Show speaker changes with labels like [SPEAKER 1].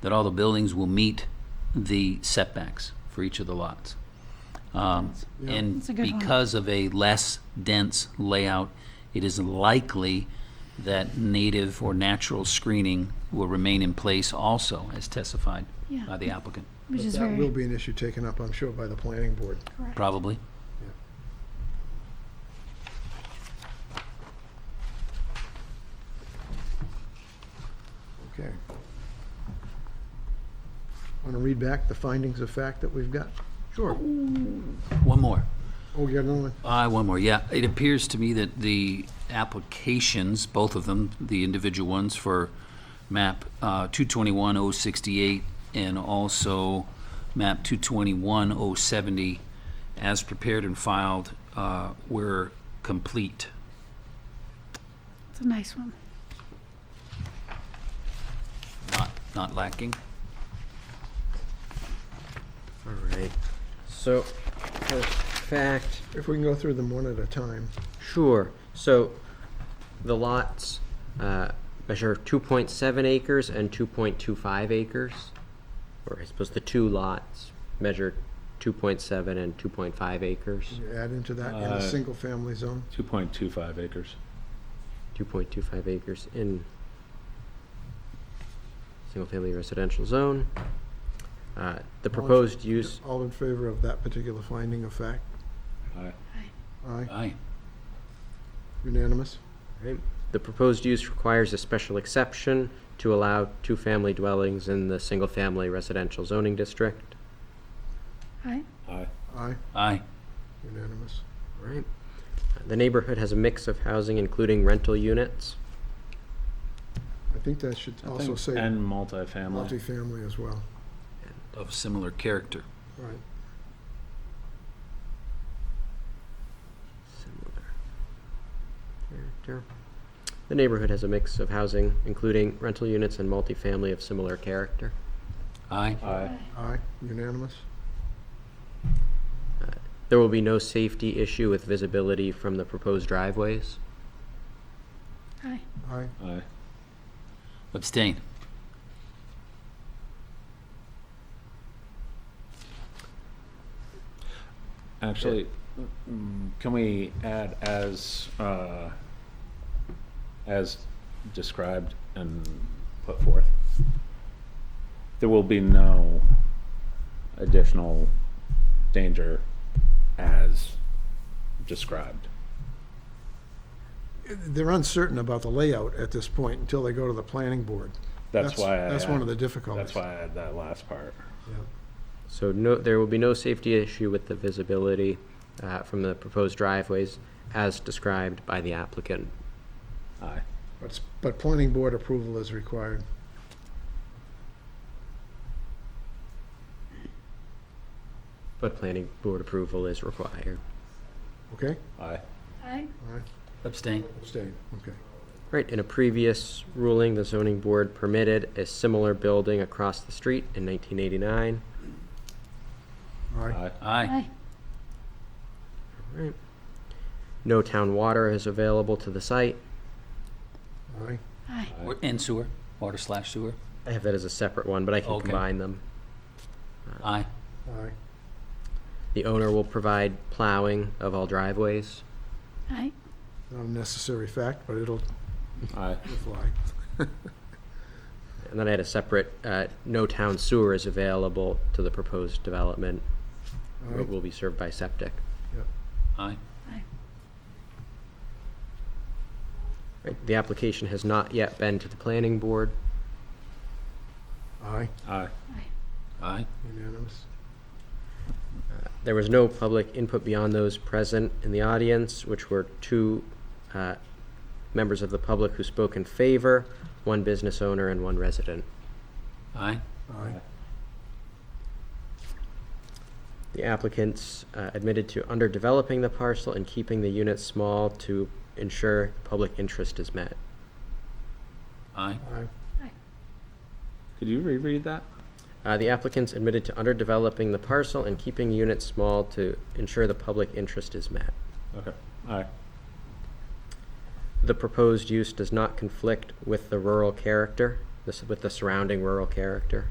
[SPEAKER 1] that all the buildings will meet the setbacks for each of the lots. Um, And
[SPEAKER 2] That's a good one.
[SPEAKER 1] because of a less dense layout, it is likely that native or natural screening will remain in place also, as testified
[SPEAKER 2] Yeah.
[SPEAKER 1] by the applicant,
[SPEAKER 2] Which is
[SPEAKER 3] That will
[SPEAKER 2] very
[SPEAKER 3] be an issue taken up, I'm sure, by the planning board.
[SPEAKER 2] correct.
[SPEAKER 1] probably.
[SPEAKER 3] Okay. Want to read back the findings of fact that we've got? Sure.
[SPEAKER 1] One more.
[SPEAKER 3] Oh, you got another one?
[SPEAKER 1] Uh, one more, yeah. It appears to me that the applications, both of them, the individual ones for map uh, 221068 and also map 221070, as prepared and filed, uh, were complete.
[SPEAKER 2] It's a nice one.
[SPEAKER 1] Not, not lacking.
[SPEAKER 4] All right. So, for fact,
[SPEAKER 3] If we can go through them one at a time.
[SPEAKER 4] sure. So, the lots uh, measure 2.7 acres and 2.25 acres. Or I suppose the two lots measure 2.7 and 2.5 acres.
[SPEAKER 3] You Add into that in a
[SPEAKER 5] Uh,
[SPEAKER 3] single-family zone.
[SPEAKER 5] 2.25 acres.
[SPEAKER 4] 2.25 acres in single-family residential zone. Uh, The proposed use,
[SPEAKER 3] All in favor of that particular finding of fact?
[SPEAKER 5] Aye.
[SPEAKER 3] Aye,
[SPEAKER 1] Aye.
[SPEAKER 3] unanimous?
[SPEAKER 4] Right. The proposed use requires a special exception to allow two-family dwellings in the single-family residential zoning district.
[SPEAKER 2] Aye.
[SPEAKER 5] Aye.
[SPEAKER 3] Aye,
[SPEAKER 1] Aye.
[SPEAKER 3] unanimous.
[SPEAKER 4] Right. The neighborhood has a mix of housing, including rental units.
[SPEAKER 3] I think that should
[SPEAKER 5] I
[SPEAKER 3] also
[SPEAKER 5] think-
[SPEAKER 3] say
[SPEAKER 5] And multifamily.
[SPEAKER 3] multifamily as well.
[SPEAKER 1] Of similar character.
[SPEAKER 3] Right.
[SPEAKER 4] Similar character. The neighborhood has a mix of housing, including rental units and multifamily of similar character.
[SPEAKER 1] Aye.
[SPEAKER 5] Aye.
[SPEAKER 3] Aye, unanimous?
[SPEAKER 4] There will be no safety issue with visibility from the proposed driveways.
[SPEAKER 2] Aye.
[SPEAKER 3] Aye,
[SPEAKER 5] Aye.
[SPEAKER 1] Abstain.
[SPEAKER 5] Actually, mm, can we add as, uh, as described and put forth? There will be no additional danger as described.
[SPEAKER 3] they're uncertain about the layout at this point until they go to the planning board.
[SPEAKER 5] That's why I.
[SPEAKER 3] That's one of the
[SPEAKER 5] add-
[SPEAKER 3] difficulties.
[SPEAKER 5] That's why I had that last part.
[SPEAKER 3] Yeah.
[SPEAKER 4] So no, there will be no safety issue with the visibility uh, from the proposed driveways as described by the applicant.
[SPEAKER 5] Aye.
[SPEAKER 3] But, s- but planning board approval is required.
[SPEAKER 4] But planning board approval is required.
[SPEAKER 3] Okay?
[SPEAKER 5] Aye.
[SPEAKER 2] Aye.
[SPEAKER 3] All right,
[SPEAKER 1] Abstain.
[SPEAKER 3] abstain, okay.
[SPEAKER 4] Right, in a previous ruling, the zoning board permitted a similar building across the street in 1989.
[SPEAKER 3] All right,
[SPEAKER 5] Aye.
[SPEAKER 1] Aye.
[SPEAKER 2] Aye.
[SPEAKER 4] Right. No town water is available to the site.
[SPEAKER 3] all right,
[SPEAKER 2] Aye.
[SPEAKER 1] Or- And sewer, water slash sewer.
[SPEAKER 4] I have that as a separate one, but I can
[SPEAKER 1] Okay.
[SPEAKER 4] combine them.
[SPEAKER 1] Aye.
[SPEAKER 3] all right,
[SPEAKER 4] The owner will provide plowing of all driveways.
[SPEAKER 2] Aye.
[SPEAKER 3] not a necessary fact, but it'll
[SPEAKER 5] Aye.
[SPEAKER 3] it'll fly.
[SPEAKER 4] And then I had a separate, uh, no town sewer is available to the proposed development.
[SPEAKER 3] All
[SPEAKER 4] It
[SPEAKER 3] right,
[SPEAKER 4] will be served by septic.
[SPEAKER 1] Aye.
[SPEAKER 4] Right, The application has not yet been to the planning board.
[SPEAKER 3] aye,
[SPEAKER 5] Aye.
[SPEAKER 1] Aye.
[SPEAKER 3] unanimous,
[SPEAKER 4] There was no public input beyond those present in the audience, which were two uh, members of the public who spoke in favor, one business owner and one resident.
[SPEAKER 1] Aye.
[SPEAKER 3] aye,
[SPEAKER 4] The applicants uh, admitted to underdeveloping the parcel and keeping the units small to ensure public interest is met.
[SPEAKER 1] Aye.
[SPEAKER 3] aye,
[SPEAKER 5] Could you reread that?
[SPEAKER 4] Uh, The applicants admitted to underdeveloping the parcel and keeping units small to ensure the public interest is met.
[SPEAKER 5] Okay. Aye.
[SPEAKER 4] The proposed use does not conflict with the rural character, this- with the surrounding rural character.